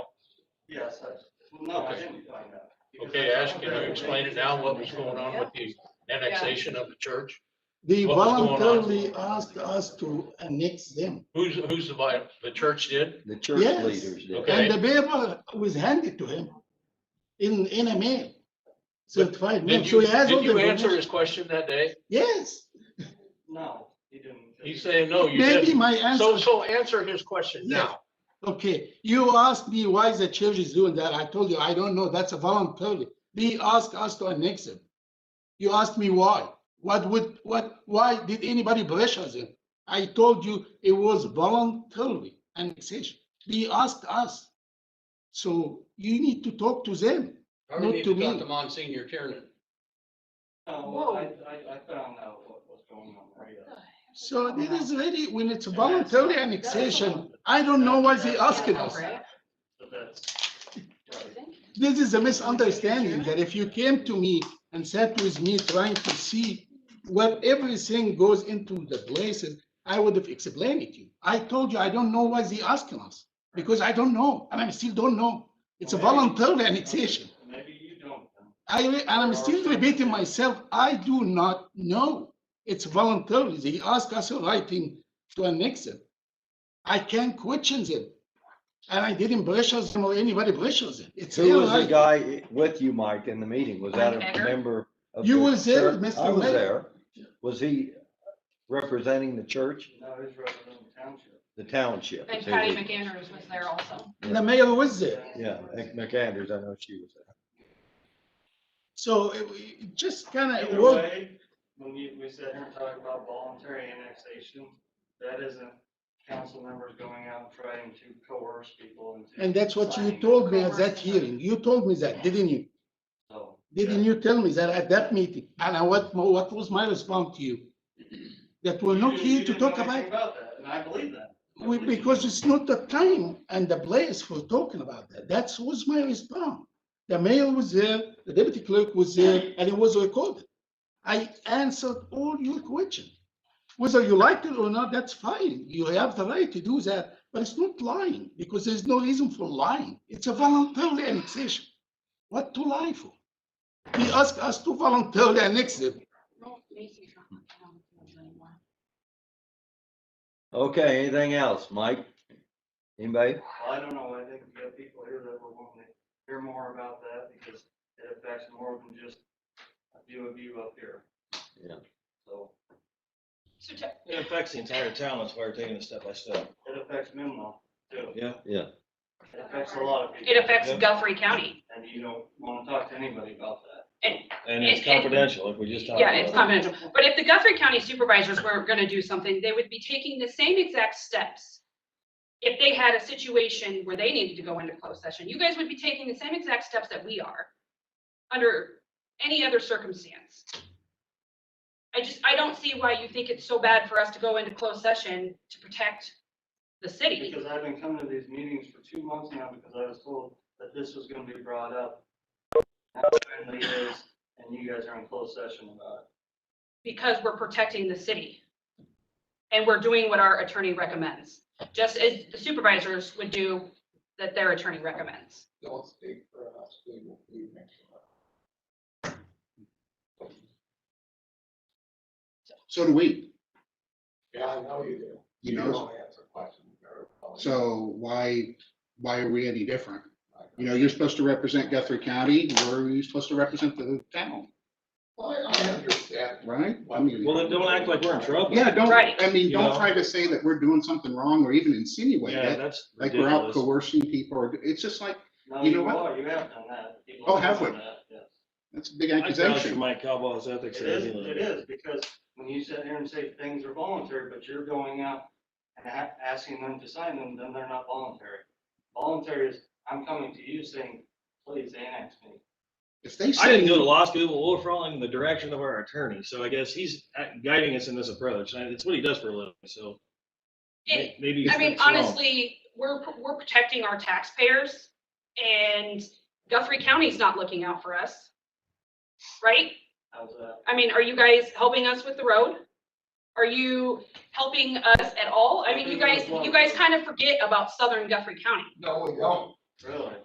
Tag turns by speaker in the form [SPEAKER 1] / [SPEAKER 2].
[SPEAKER 1] Yes, that's, well, no, I
[SPEAKER 2] Okay.
[SPEAKER 1] didn't find out. because
[SPEAKER 2] Okay,
[SPEAKER 1] I-
[SPEAKER 2] Ash, can you explain it now, what was going on with the annexation of the church?
[SPEAKER 3] They
[SPEAKER 2] What was going on?
[SPEAKER 3] voluntarily asked us to annex them.
[SPEAKER 2] Who's, who's the, vi- the church did?
[SPEAKER 4] The church
[SPEAKER 3] Yes.
[SPEAKER 4] leaders did.
[SPEAKER 2] Okay.
[SPEAKER 3] And the paper was handed to him in, in a mail. Certified mail.
[SPEAKER 2] Did
[SPEAKER 3] So
[SPEAKER 2] you,
[SPEAKER 3] he has all
[SPEAKER 2] did you
[SPEAKER 3] the
[SPEAKER 2] answer
[SPEAKER 3] documents.
[SPEAKER 2] his question that day?
[SPEAKER 3] Yes,
[SPEAKER 1] No, he didn't.
[SPEAKER 2] He's saying, no, you
[SPEAKER 3] maybe
[SPEAKER 2] didn't.
[SPEAKER 3] my
[SPEAKER 2] So,
[SPEAKER 3] answer,
[SPEAKER 2] so answer his question now.
[SPEAKER 3] okay, you asked me why the church is doing that. I told you, I don't know. That's a voluntarily. They asked us to annex them. You asked me why. What would, what, why did anybody pressure them? I told you it was voluntarily annexation. They asked us. So you need to talk to them.
[SPEAKER 2] Or we
[SPEAKER 3] Not
[SPEAKER 2] need
[SPEAKER 3] to
[SPEAKER 2] talk
[SPEAKER 3] me.
[SPEAKER 2] to Monsignor Tiernan.
[SPEAKER 1] No, well, I, I, I found out what was going on, right? uh,
[SPEAKER 3] So this is really, when it's
[SPEAKER 1] that's-
[SPEAKER 3] voluntary
[SPEAKER 1] that's-
[SPEAKER 3] annexation, I don't know why they asking us.
[SPEAKER 5] Right.
[SPEAKER 1] But that's, right.
[SPEAKER 3] This is a misunderstanding, that if you came to me and sat with me trying to see what everything goes into the places, I would have explained it to you. I told you, I don't know why they asking us, because I don't know, and I still don't know. It's a
[SPEAKER 1] Well, maybe-
[SPEAKER 3] voluntary annexation.
[SPEAKER 1] Maybe you don't. um, then.
[SPEAKER 3] I, re- and I'm still repeating myself, I do not know. It's voluntary. They ask us in writing to annex it. I can't question them. And I didn't pressure them or anybody pressures them. It's
[SPEAKER 4] Who
[SPEAKER 3] their
[SPEAKER 4] was the
[SPEAKER 3] right.
[SPEAKER 4] guy with you, Mike, in the meeting? Was that
[SPEAKER 5] Mike
[SPEAKER 4] a
[SPEAKER 5] Egger?
[SPEAKER 4] member of?
[SPEAKER 3] You
[SPEAKER 4] the
[SPEAKER 3] was there,
[SPEAKER 4] church?
[SPEAKER 3] Mr.
[SPEAKER 4] I was
[SPEAKER 3] Mayor.
[SPEAKER 4] there. Was he representing the church,
[SPEAKER 1] No, he's representing the township.
[SPEAKER 4] the township?
[SPEAKER 5] And
[SPEAKER 4] is who
[SPEAKER 5] Patty
[SPEAKER 4] he-
[SPEAKER 5] McAndrews was there also.
[SPEAKER 3] And the mayor was there.
[SPEAKER 4] Yeah, Mc- McAndrews, I know she was there.
[SPEAKER 3] So it- it just kind of,
[SPEAKER 1] Either
[SPEAKER 3] well,
[SPEAKER 1] way, when you, we sit here and talk about voluntary annexation, that isn't council members going out trying to coerce people into.
[SPEAKER 3] and that's what you
[SPEAKER 1] signing.
[SPEAKER 3] told me at that hearing. You told me that, didn't you?
[SPEAKER 1] So,
[SPEAKER 3] Didn't you tell me that at that meeting? And I- what, mo- what was my response to you? That we're
[SPEAKER 1] You
[SPEAKER 3] not
[SPEAKER 1] didn't- you
[SPEAKER 3] here to
[SPEAKER 1] didn't know
[SPEAKER 3] talk
[SPEAKER 1] anything
[SPEAKER 3] about
[SPEAKER 1] About that, and I believe that. I
[SPEAKER 3] We,
[SPEAKER 1] believe you.
[SPEAKER 3] because it's not the time and the place for talking about that. That was my response. The mayor was there, the deputy clerk was there, and it was recorded. I answered all your questions. Whether you liked it or not, that's fine. You have the right to do that, but it's not lying because there's no reason for lying. It's a voluntary annexation. What to lie for? He asked us to voluntarily annex them.
[SPEAKER 5] Don't make me talk about town anymore.
[SPEAKER 4] Okay, anything else, Mike? Anybody?
[SPEAKER 1] Well, I don't know, I think we have people here that will want to hear more about that because it affects more than just a few of you up here.
[SPEAKER 4] Yeah.
[SPEAKER 1] So
[SPEAKER 5] So to-
[SPEAKER 6] It affects the entire town, that's why we're taking it step by step.
[SPEAKER 1] it affects Menlo too.
[SPEAKER 6] Yeah.
[SPEAKER 1] It affects a lot of people.
[SPEAKER 5] It affects Guthrie County.
[SPEAKER 1] And you don't want to talk to anybody about that.
[SPEAKER 6] And it's
[SPEAKER 5] It- it-
[SPEAKER 6] confidential, like we just talked
[SPEAKER 5] Yeah, it's
[SPEAKER 6] about.
[SPEAKER 5] confidential. But if the Guthrie County supervisors were gonna do something, they would be taking the same exact steps. If they had a situation where they needed to go into closed session, you guys would be taking the same exact steps that we are under any other circumstance. I just, I don't see why you think it's so bad for us to go into closed session to protect the city.
[SPEAKER 1] Because I've been coming to these meetings for two months now because I was told that this was gonna be brought up. Now it finally is, and you guys are in closed session about
[SPEAKER 5] because we're protecting the city. And we're doing what our attorney recommends, just as the supervisors would do that their attorney recommends.
[SPEAKER 7] don't speak for us, we will be next time. So do we. Yeah, I know you do. You know,
[SPEAKER 6] Oh,
[SPEAKER 7] so why, why are we any different? You know, you're supposed to represent Guthrie County, we're you're supposed to represent the town,
[SPEAKER 8] Well, I understand.
[SPEAKER 7] right? I mean-
[SPEAKER 6] Well, then don't act like we're in trouble.
[SPEAKER 7] Yeah, don't,
[SPEAKER 5] Right.
[SPEAKER 7] I mean,
[SPEAKER 6] You
[SPEAKER 7] don't
[SPEAKER 6] know?
[SPEAKER 7] try to say that we're doing something wrong or even insinuate
[SPEAKER 6] Yeah,
[SPEAKER 7] that,
[SPEAKER 6] that's
[SPEAKER 7] like we're out
[SPEAKER 6] ridiculous.
[SPEAKER 7] coercing people, or it's just like,
[SPEAKER 1] it. No,
[SPEAKER 7] You know
[SPEAKER 1] you
[SPEAKER 7] what?
[SPEAKER 1] are, you have done that. People
[SPEAKER 7] Oh, have
[SPEAKER 1] done
[SPEAKER 7] we?
[SPEAKER 1] that, yes.
[SPEAKER 7] that's a big
[SPEAKER 6] I vouch for
[SPEAKER 7] accusation.
[SPEAKER 6] Mike Cowbell's ethics.
[SPEAKER 1] It is, it is, because when you sit here and say things are voluntary, but you're going out and a- asking them to sign them, then they're not voluntary. Voluntary is, I'm coming to you saying, please annex me.
[SPEAKER 7] If they
[SPEAKER 6] I didn't
[SPEAKER 7] say,
[SPEAKER 6] go to law school, we're following the direction of our attorney, so I guess he's guiding us in this approach, and it's what he does for a living, so
[SPEAKER 5] It,
[SPEAKER 6] may- maybe.
[SPEAKER 5] I mean,
[SPEAKER 6] it's wrong.
[SPEAKER 5] honestly, we're, we're protecting our taxpayers and Guthrie County's not looking out for us. Right?
[SPEAKER 1] How's that?
[SPEAKER 5] I mean, are you guys helping us with the road? Are you helping us at all? I mean, you guys, you guys kind of forget about southern Guthrie County.
[SPEAKER 8] No, we don't.